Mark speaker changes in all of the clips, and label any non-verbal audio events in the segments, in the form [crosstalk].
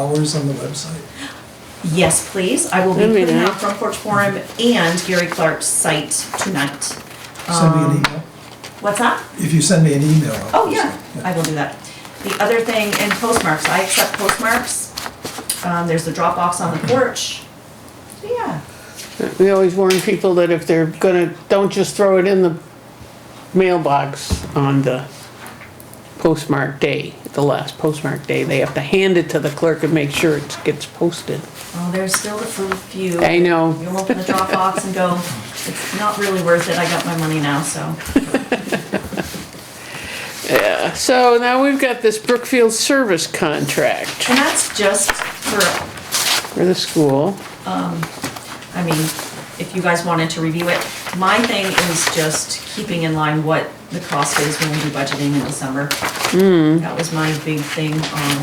Speaker 1: hours on the website?
Speaker 2: Yes, please. I will be
Speaker 3: That'd be
Speaker 2: putting out
Speaker 3: nice.
Speaker 2: Front Porch Forum and Gary Clark's site tonight.
Speaker 1: Send me an
Speaker 2: Um,
Speaker 1: email.
Speaker 2: What's that?
Speaker 1: If you send me an email. I'll
Speaker 2: Oh,
Speaker 1: post
Speaker 2: yeah,
Speaker 1: it.
Speaker 2: I will do that. The other thing, and postmarks, I accept postmarks. Um, there's the drop offs on the porch. Yeah,
Speaker 3: We always warn people that if they're gonna, don't just throw it in the mailbox on the postmark day, the last postmark day. They have to hand it to the clerk and make sure it gets posted.
Speaker 2: well, Oh, there's still the fir- few.
Speaker 3: I know.
Speaker 2: You'll open the drop box and go, it's not really worth it, I got my money now, so.
Speaker 3: So now we've got this Brookfield service contract
Speaker 2: And that's just for
Speaker 3: for the school.
Speaker 2: I mean, if you guys wanted to review it, my thing is just keeping in line what the cost is when we do budgeting in December. That was my big thing, um,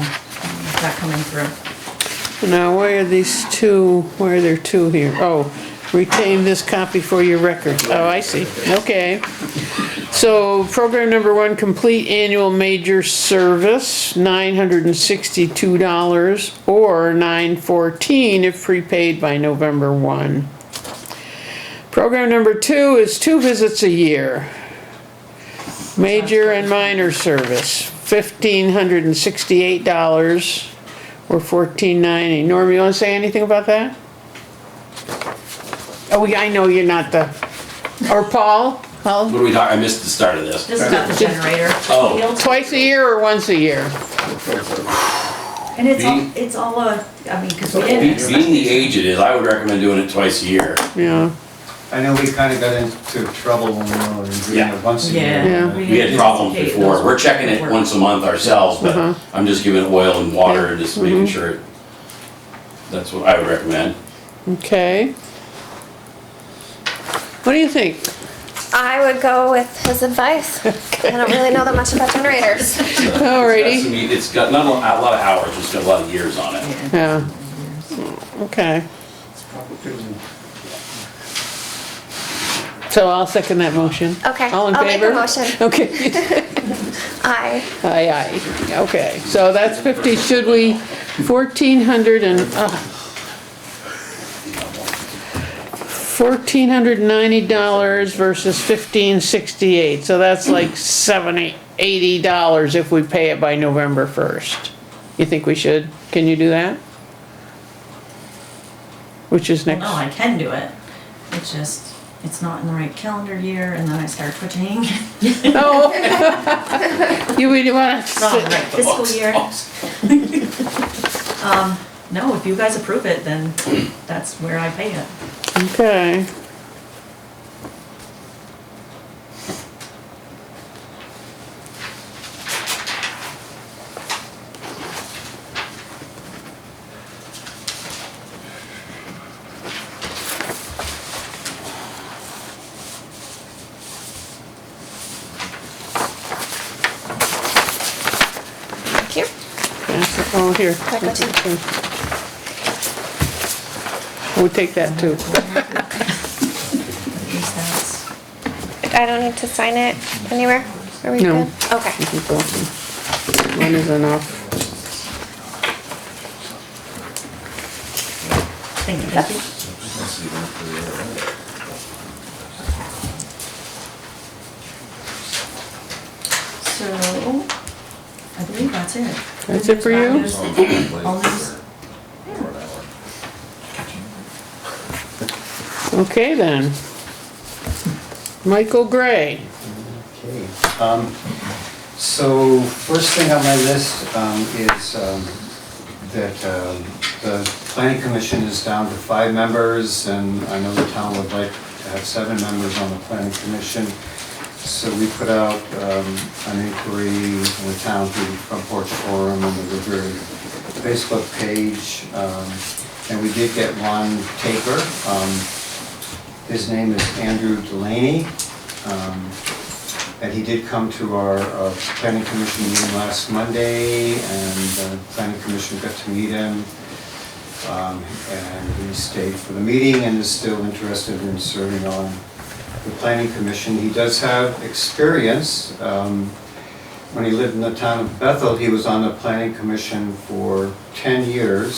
Speaker 2: that coming through.
Speaker 3: Now, why are these two, why are there two here? Oh, retain this copy for your record. Oh, I see, okay. So, program number one, complete annual major service, nine hundred and sixty-two dollars, or nine fourteen if prepaid by November one. Program number two is two visits a year. Major and minor service, fifteen hundred and sixty-eight dollars or fourteen ninety. Norm, you wanna say anything about that? Oh, yeah, I know you're not the, or Paul? Paul?
Speaker 4: What are we talking? I missed the start of this.
Speaker 2: This is about the generator.
Speaker 4: Oh.
Speaker 2: Field.
Speaker 3: Twice a year or once a year?
Speaker 2: And it's all,
Speaker 4: Being-
Speaker 2: it's all a, I mean, cause we
Speaker 4: Be-
Speaker 2: didn't. expect-
Speaker 4: Being the age it is, I would recommend doing it twice a year.
Speaker 3: Yeah,
Speaker 5: I know we kind of got into trouble when we were doing
Speaker 4: Yeah.
Speaker 5: it once Uh, a
Speaker 2: Yeah.
Speaker 5: year.
Speaker 2: we
Speaker 4: We had problems
Speaker 2: anticipated
Speaker 4: before.
Speaker 2: those
Speaker 4: We're checking it
Speaker 2: were-
Speaker 4: once a month ourselves, but I'm just giving it oil and water and just making sure. it- That's what I would recommend.
Speaker 3: okay. What do you think?
Speaker 6: I would go with his
Speaker 3: [laughs]
Speaker 6: advice. I don't really know that much about generators.
Speaker 3: Alrighty.
Speaker 4: It's got some- It's got not a lot a lot of hours, it's got a lot of years on it.
Speaker 2: Yeah.
Speaker 3: Yeah, okay. So I'll second that motion.
Speaker 6: Okay,
Speaker 3: All in
Speaker 6: I'll make
Speaker 3: favor?
Speaker 6: the motion.
Speaker 3: Okay. [laughs]
Speaker 6: I
Speaker 3: Aye, aye, okay, so that's fifty, should we, fourteen hundred and, uh, fourteen hundred ninety dollars versus fifteen sixty-eight, so that's like seventy, eighty dollars if we pay it by November first. You think we should, can you do that? Which is
Speaker 2: Well,
Speaker 3: next,
Speaker 2: No, Oh, I can do it. It's just, it's not in the right calendar year and then I start twitching. [laughs]
Speaker 3: oh. [laughs] You really wanna,
Speaker 2: Not in the
Speaker 3: sit-
Speaker 2: right fiscal
Speaker 4: [laughs]
Speaker 2: year. Um, no, if you guys approve it, then that's where I pay it.
Speaker 3: okay.
Speaker 6: thank you.
Speaker 3: That's it. Oh, here.
Speaker 6: That go too?
Speaker 3: We'll take that too.
Speaker 2: At least that's-
Speaker 6: I don't need to sign it anywhere. Are we
Speaker 3: No.
Speaker 6: good? Okay.
Speaker 3: One is enough.
Speaker 2: Thank you, Kathy. So, I believe that's it.
Speaker 3: That's it for
Speaker 2: All
Speaker 3: you?
Speaker 2: news- all news-
Speaker 3: Okay then. Michael Gray.
Speaker 5: Okay. um, So first thing on my list um, is um, that um, the planning commission is down to five members, and I know the town would like to have seven members on the planning commission. So we put out um, an inquiry in the town through the Front Porch Forum and the Woodbury Facebook page, um, and we did get one taker. Um, His name is Andrew Delaney. Um, and he did come to our uh, planning commission meeting last Monday, and the planning commission got to meet him. Um, And he stayed for the meeting and is still interested in serving on the planning commission. He does have experience um, When he lived in the town of Bethel, he was on the planning commission for 10 years.